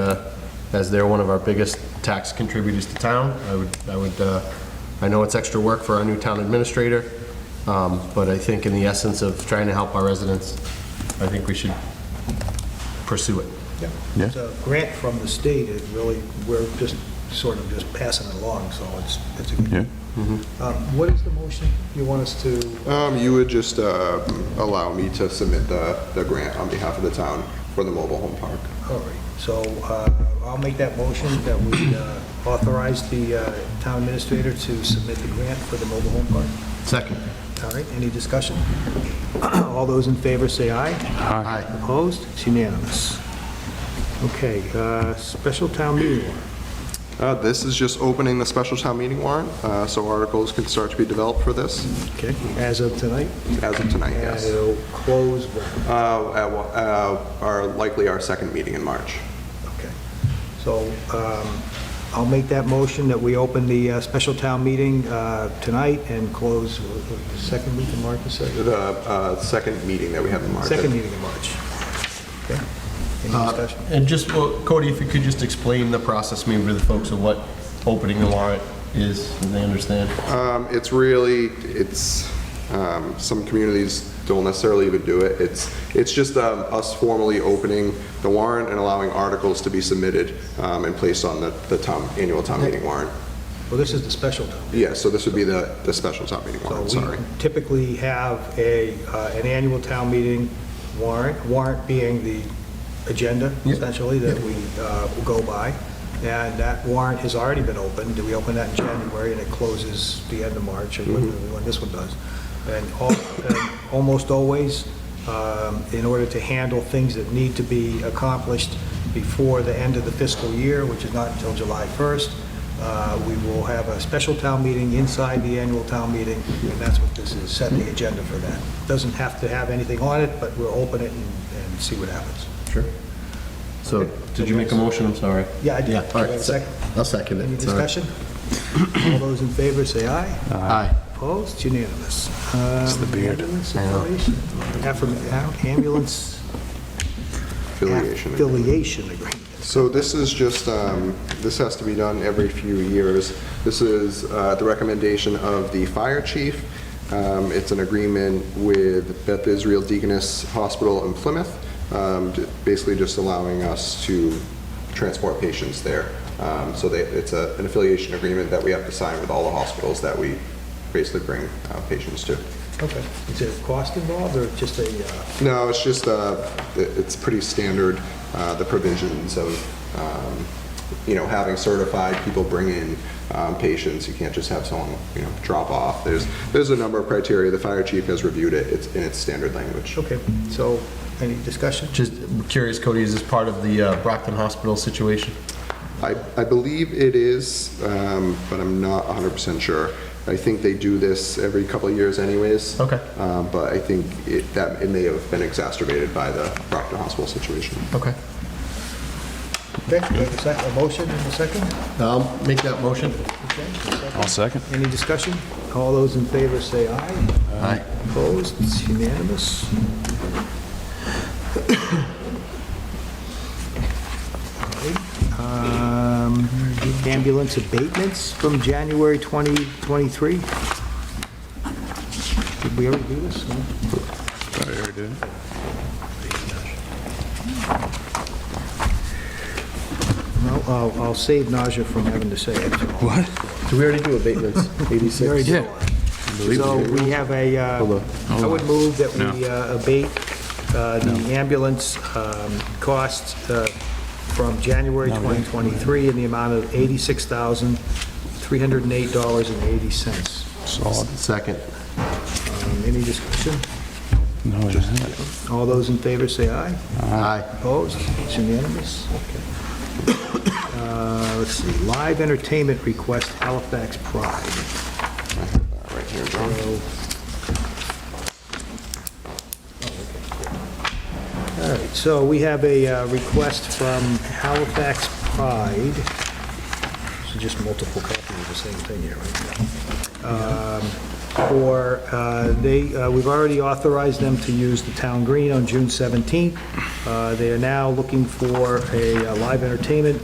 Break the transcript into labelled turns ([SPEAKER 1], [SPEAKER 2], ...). [SPEAKER 1] uh, as they're one of our biggest tax contributors to town. I would, I would, uh, I know it's extra work for our new town administrator, um, but I think in the essence of trying to help our residents, I think we should pursue it.
[SPEAKER 2] Yeah.
[SPEAKER 3] It's a grant from the state, it really, we're just sort of just passing it along, so it's, it's a
[SPEAKER 2] Yeah. Mm-hmm.
[SPEAKER 3] good. Um, What is the motion you want us to,
[SPEAKER 4] Um, you would just, uh, allow me to submit the, the grant on behalf of the town for the mobile home park.
[SPEAKER 3] all right, so uh, I'll make that motion that we uh, authorize the uh, town administrator to submit the grant for the mobile home park.
[SPEAKER 1] Second.
[SPEAKER 3] All right, any discussion? All those in favor say aye.
[SPEAKER 1] Aye.
[SPEAKER 3] Opposed? It's unanimous. Okay, uh, special town meeting warrant.
[SPEAKER 4] Uh, this is just opening the special town meeting warrant, uh, so articles can start to be developed for this
[SPEAKER 3] Okay, as of tonight?
[SPEAKER 4] as of tonight,
[SPEAKER 3] And
[SPEAKER 4] yes.
[SPEAKER 3] it'll close when?
[SPEAKER 4] Uh, at wa- uh, our, likely our second meeting in March.
[SPEAKER 3] Okay. So um, I'll make that motion that we open the uh, special town meeting uh, tonight and close uh, the second week in March, you said?
[SPEAKER 4] The, uh, second meeting that we have in March.
[SPEAKER 3] Second meeting in March. Okay. Any
[SPEAKER 1] Uh,
[SPEAKER 3] discussion?
[SPEAKER 1] And just, well, Cody, if you could just explain the process maybe to the folks of what opening the warrant is, and they understand.
[SPEAKER 4] Um, It's really, it's, um, some communities don't necessarily even do it. It's, it's just um, us formally opening the warrant and allowing articles to be submitted um, and placed on the, the town, annual town meeting warrant.
[SPEAKER 3] Well, this is the special town.
[SPEAKER 4] Yeah, so this would be the, the special town meeting warrant,
[SPEAKER 3] So we
[SPEAKER 4] sorry.
[SPEAKER 3] typically have a, uh, an annual town meeting warrant, warrant being the agenda essentially that we uh, will go by. And that warrant has already been opened. We opened that in January and it closes the end of March or when when this one does. And al- and almost always, um, in order to handle things that need to be accomplished before the end of the fiscal year, which is not until July 1st, uh, we will have a special town meeting inside the annual town meeting, and that's what this is, set the agenda for that. Doesn't have to have anything on it, but we'll open it and and see what happens.
[SPEAKER 1] Sure. So, did you make a motion? I'm sorry.
[SPEAKER 3] Yeah, I did.
[SPEAKER 1] all
[SPEAKER 3] Do I have
[SPEAKER 1] right,
[SPEAKER 3] a
[SPEAKER 1] sec-
[SPEAKER 3] second?
[SPEAKER 1] I'll second it.
[SPEAKER 3] Any
[SPEAKER 1] Sorry.
[SPEAKER 3] discussion? All those in favor, say aye.
[SPEAKER 1] Aye.
[SPEAKER 3] Opposed, unanimous. Um, It's the beard. Ambulance
[SPEAKER 4] Affiliation.
[SPEAKER 3] affiliation agreement.
[SPEAKER 4] So this is just, um, this has to be done every few years. This is uh, the recommendation of the fire chief. Um, It's an agreement with Beth Israel Deaconess Hospital in Plymouth, um, j- basically just allowing us to transport patients there. Um, So they- it's a- an affiliation agreement that we have to sign with all the hospitals that we basically bring uh, patients to.
[SPEAKER 3] Okay. Is there a cost involved, or just a, uh,
[SPEAKER 4] No, it's just, uh, it- it's pretty standard, uh, the provisions of, um, you know, having certified people bring in um, patients. You can't just have someone, you know, drop off. There's, there's a number of criteria. The fire chief has reviewed it. It's in its standard language.
[SPEAKER 3] okay, so, any discussion?
[SPEAKER 1] Just curious, Cody, is this part of the uh, Brockton Hospital situation?
[SPEAKER 4] I, I believe it is, um, but I'm not 100% sure. I think they do this every couple of years anyways.
[SPEAKER 1] Okay.
[SPEAKER 4] Um, But I think it, that, it may have been exacerbated by the Brockton Hospital situation.
[SPEAKER 1] Okay.
[SPEAKER 3] Okay, we have a sec- a motion and a second?
[SPEAKER 1] I'll make that motion.
[SPEAKER 2] I'll second.
[SPEAKER 3] Any discussion? All those in favor say aye.
[SPEAKER 1] Aye.
[SPEAKER 3] Opposed, it's unanimous. Um, Ambulance abatements from January 2023. Did we already do this? No? No, I'll- I'll save nausea from having to say it. What?
[SPEAKER 1] Do we already do abatements? 86?
[SPEAKER 2] Yeah.
[SPEAKER 3] So we have a, uh, I would move that we uh, abate uh, the ambulance um, costs uh, from January 2023 in the amount of $86,308.80.
[SPEAKER 2] Solid.
[SPEAKER 1] Second.
[SPEAKER 3] Um, Any discussion?
[SPEAKER 2] No, it isn't.
[SPEAKER 3] All those in favor say aye.
[SPEAKER 1] Aye.
[SPEAKER 3] Opposed? It's unanimous. Okay. Uh, Let's see, live entertainment request Halifax Pride.
[SPEAKER 4] Uh, Right here, John.
[SPEAKER 3] All right, so we have a uh, request from Halifax Pride. So just multiple copies of the same thing here, right? Um, For, uh, they, uh, we've already authorized them to use the town green on June 17th. Uh, They are now looking for a uh, live entertainment